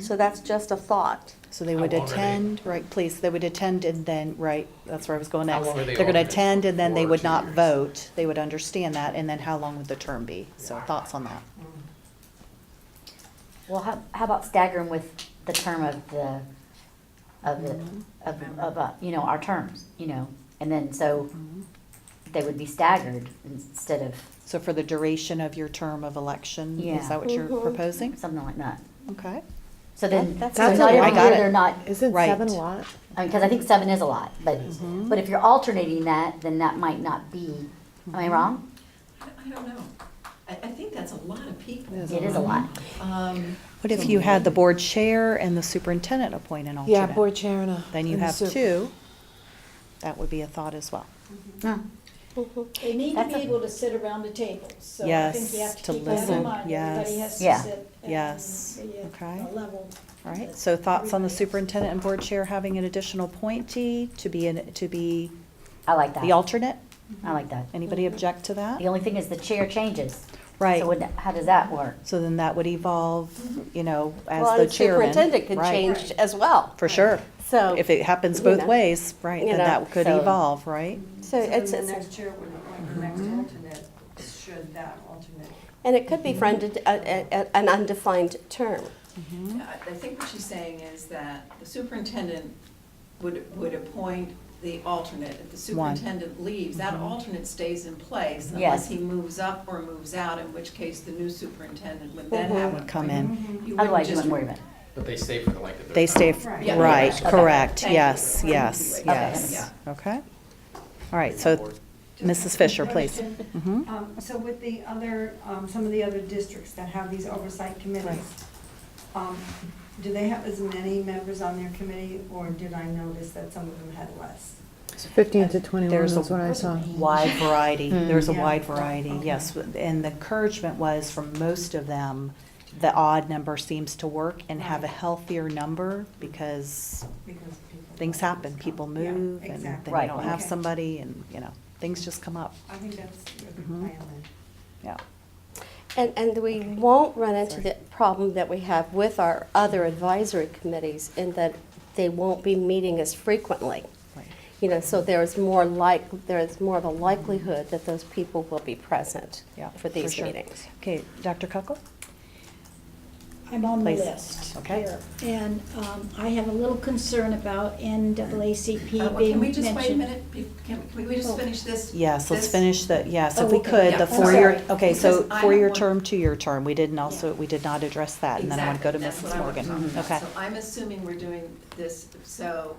So that's just a thought. So they How would long are they? attend, right, please, they would attend and then, right, that's where I was going How next. long are they They're gonna alternate? attend and then they One or would two not years? vote, they would understand that, and then how long would the term be? So Yeah. thoughts on that? Well, how, how about staggering with the term of the, of the, of, Mm-hmm. of, uh, you know, our terms, you know? And then, so Mm-hmm. they would be staggered instead of So for the duration of your term of election, Yeah. is that what you're Mm-hmm. Mhm. proposing? something like that. Okay, So then, That- that's so good. not every I got year it. they're not, Isn't Right. seven a lot? I mean, cause I think seven is a lot, but, Mm-hmm. but if you're alternating that, then that might not be, am I wrong? I I don't know. I, I think that's a lot of people. Mm-hmm. It is It is a lot. Um, what if you had the board chair and the superintendent appoint an alternate? Yeah, board chair and a. Then you and a have sup- two, that would be a thought as well. No. They need to That's be a- able to sit around the table, so I think you Yes, have to to keep that listen, in mind, everybody yes. has to Yeah. sit and Yes, be at okay. uh, a level. All right, that so thoughts on the everybody else- superintendent and board chair having an additional appointee to be, an- to be I like the that, alternate? I like that. Anybody Mm-hmm. object to that? The only thing is the chair changes. Right. So would, how does that work? So then that would evolve, you know, as Mm-hmm. Well, the and chairman. Superintendent could Right. change as well. For sure. So- If it happens You both know. ways, right, You then know, that could so- evolve, right? So it's, it's- chair would appoint the next Mm-hmm. alternate, should that alternate. and it could be for unde- a- a- a- uh, an undefined term. I I think what she's saying is that the superintendent would, would appoint the alternate. If the One. superintendent leaves, that Mm-hmm. alternate stays in place Yes. unless he moves up or moves out, in which case the new superintendent would Mhm. then Mm-hmm. Mm-hmm. have an Come in. appointment. You wouldn't Otherwise, you just- wouldn't worry about it. But they stay for the length of their. They stay, f- Right. Yeah. right, Okay. correct, Thank you. yes, Okay. yes, Okay. yes. Okay? All right, so Mrs. Fisher, please. Mhm. Um, So with the other, um, some of the other districts that have these oversight committees, um, do they have as many members on their committee, or did I notice that some of them had less? It's Fifteen to twenty-one There's is a- what I saw. wide variety, Mm. there's a Yeah. wide variety, Okay. yes. And the encouragement was from most of them, the odd number seems to work and have a Right. healthier number because Because people- things happen, people Yeah, move, and then exactly. you don't have Okay. somebody, and, you know, things just come up, I think that's a good Mhm. plan then. yeah. And, and we won't run into the problem that we have with our other advisory committees in that they won't be meeting as frequently. right. You know, so there is more like, there is more of a likelihood that those people will be present Yeah, for these sure. meetings. Okay, Dr. Cuckle? I'm on the Please. list. Okay. here, And um, I have a little concern about NAACP Uh, well, being Can we just wait a mentioned. minute? Be- Can, can we just Oh. finish this? Yes, let's this? finish the, yes, Oh, if we okay. could, Yeah, the I'm four-year, sorry. okay, so Because I have four-year one- term, two-year term, we didn't also, we did not address that, and then I want to go to Mrs. Exactly, that's what I Morgan. was talking Okay, about. So I'm assuming we're doing this, so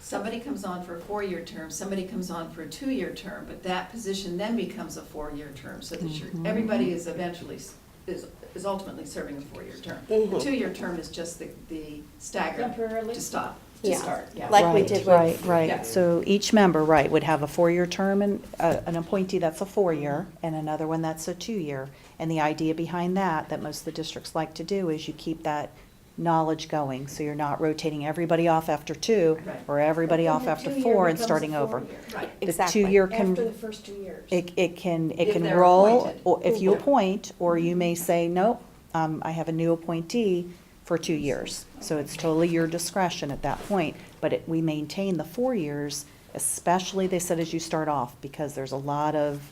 somebody comes on for a four-year term, somebody comes on for a two-year term, but that position then becomes a four-year term, so that you're, Mm-hmm. everybody is eventually, s- is, is ultimately serving a four-year term. The Mhm. two-year term is just the, the stagger Temporarily? to stop, to Yeah. start, yeah. Like we Right, did with- Right, Yeah. right, so each member, right, would have a four-year term and, uh, an appointee that's a four-year, and another one that's a two-year. And the idea behind that, that most of the districts like to do, is you keep that knowledge going, so you're not rotating everybody off after two, Right. or everybody Then off the after two-year four and becomes a starting over. four-year. Right. The Exactly. two-year can. After the first two years. It, it can, it If can they're roll, appointed. or if you Yeah. appoint, or you may say, nope, um, I have a new appointee for two years. So it's totally your discretion at that point, but it, we maintain the four years, especially, they said, as you start off, because there's a lot of,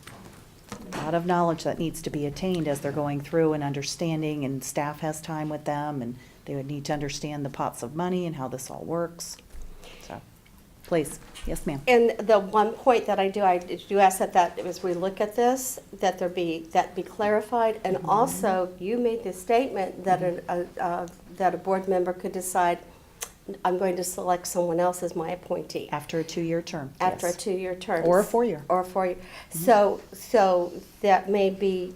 a lot of knowledge that needs to be attained as they're going through and understanding, and staff has time with them, and they would need to understand the pots of money and how this all works. So, please, yes, ma'am. And the one point that I do, I do ask that that, as we look at this, that there be, that be clarified. And Mm-hmm. also, you made the statement that a, a- uh, that a board member could decide, I'm going to select someone else as my appointee After a two-year term. after a yes. two-year term. Or a four-year. Mm-hmm. Or a four-year. So, so that may be,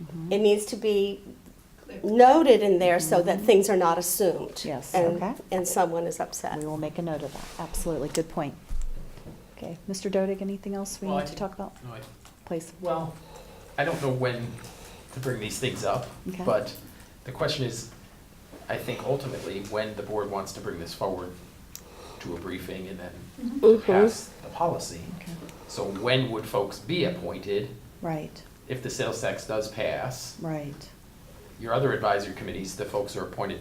Mm-hmm. it needs to be noted in there so that things are not assumed. Mm-hmm. Yes. and- Okay. And someone is upset. We will make a note of that, absolutely, good point. Okay, Mr. Dodig, anything else we Well, I need to think- talk about, No, I- please? Well, I don't know when to bring these things up, Okay. but the question is, I think ultimately, when the board wants to bring this forward to a briefing and then Mhm. pass the policy. Okay. So when would folks be appointed Right, if the sales tax does pass? right. Your other advisory committees, the folks who are appointed